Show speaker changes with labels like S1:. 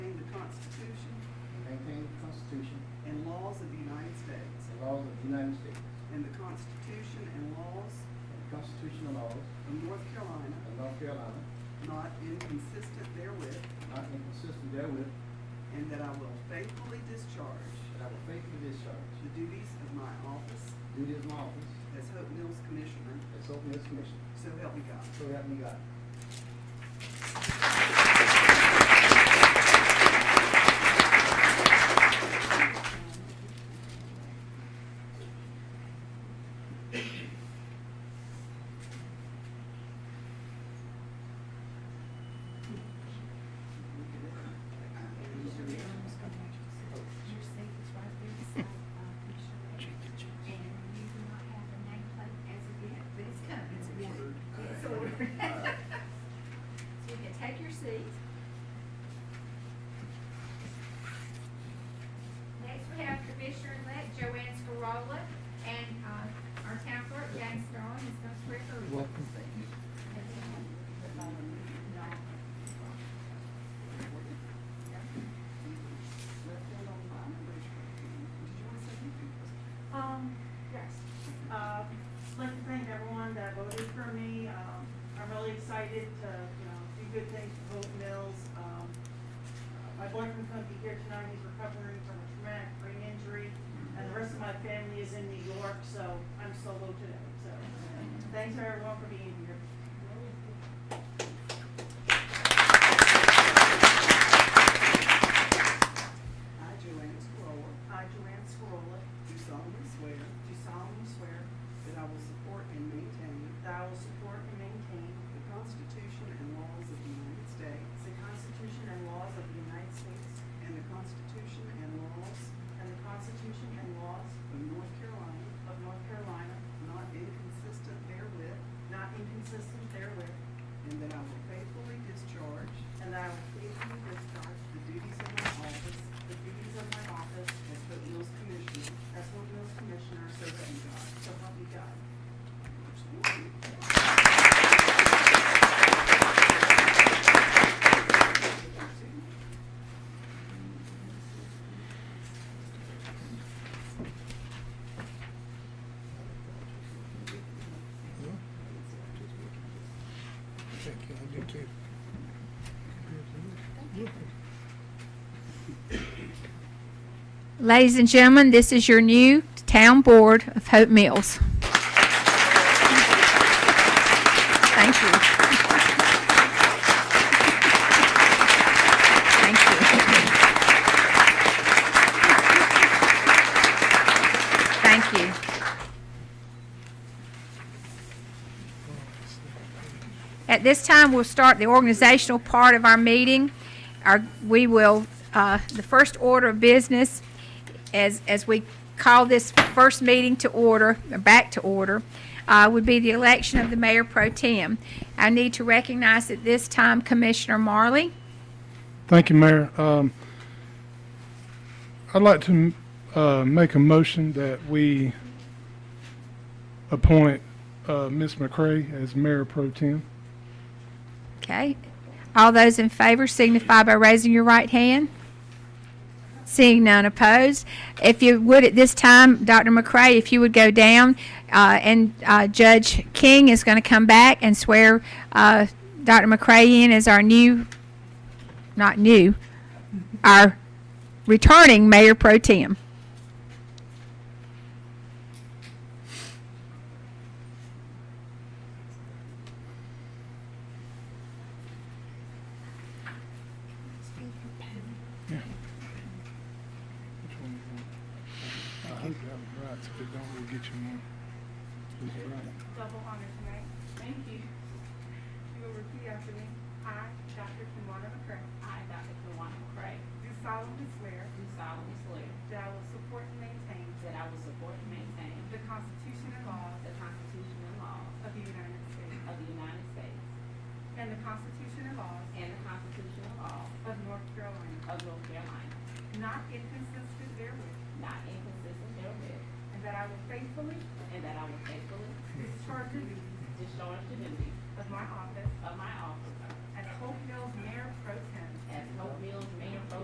S1: of North Carolina,
S2: of North Carolina,
S1: not inconsistent therewith,
S2: not inconsistent therewith,
S1: and that I will faithfully discharge
S2: that I will faithfully discharge
S1: the duties of my office
S2: the duty of my office
S1: as Hope Mills Commissioner,
S2: as Hope Mills Commissioner.
S1: so help me God.
S2: So help me God.
S3: Your seat is right there beside uh, Commissioner Rhodes. And you do not have a nameplate as of yet, but it's coming. It's ordered. It's ordered. So you can take your seat. Next, we have Commissioner-elect Joanne Scarola and uh, our town clerk, James Strong, is going to swear her. in.
S1: Left hand on the Bible, raise your right hand. Did you want to say anything?
S4: Um, yes. Um, I'd like to thank everyone that voted for me. Um, I'm really excited to, you know, do good things for Hope Mills. Um, uh, my boyfriend's gonna be here tonight. He's recovering from a traumatic brain injury. And the rest of my family is in New York, so I'm solo today. So, thanks to everyone for being here.
S1: I, Joanne Squirrel,
S4: I, Joanne Scarola,
S1: do solemnly swear
S4: do solemnly swear
S1: that I will support and maintain
S4: that I will support and maintain
S1: the Constitution and laws of the United States
S4: the Constitution and laws of the United States
S1: and the Constitution and laws
S4: and the Constitution and laws
S1: of North Carolina,
S4: of North Carolina,
S1: not inconsistent therewith,
S4: not inconsistent therewith,
S1: and that I will faithfully discharge
S4: and that I will faithfully discharge
S1: the duties of my office
S4: the duties of my office
S1: as Hope Mills Commissioner,
S4: as Hope Mills Commissioner,
S1: so help me God.
S4: so help me God.
S5: Thank you, I do too.
S3: Ladies and gentlemen, this is your new town board of Hope Mills. Thank you. Thank you. Thank you. At this time, we'll start the organizational part of our meeting. Our, we will, uh, the first order of business, as, as we call this first meeting to order, or back to order, uh, would be the election of the mayor pro tem. I need to recognize at this time Commissioner Marley.
S5: Thank you, Mayor. Um, I'd like to, uh, make a motion that we appoint, uh, Ms. McCray as Mayor Pro Tem.
S3: Okay. All those in favor signify by raising your right hand. Seeing none opposed. If you would at this time, Dr. McCray, if you would go down, uh, and uh, Judge King is going to come back and swear uh, Dr. McCray in as our new, not new, our returning Mayor Pro Tem.
S5: Which one you want? I hope that was right, so we don't really get you one. It's right.
S4: Double honor tonight. Thank you. You will repeat after me. I, Dr. Kimwana McCray,
S6: I, Dr. Kawana McCray,
S4: do
S6: do
S4: solemnly swear
S6: solemnly swear
S4: that I will support and maintain
S6: that I will support and maintain
S4: the Constitution and laws
S6: the Constitution and laws
S4: of the United States
S6: of the United States
S4: and the Constitution and laws
S6: and the Constitution and laws
S4: of North Carolina,
S6: of North Carolina,
S4: not inconsistent therewith,
S6: not inconsistent therewith,
S4: and that I will faithfully
S6: and that I will faithfully
S4: discharge the duties
S6: discharge the duties
S4: of my office
S6: of my office
S4: as Hope Mills Mayor Pro Tem
S6: as Hope Mills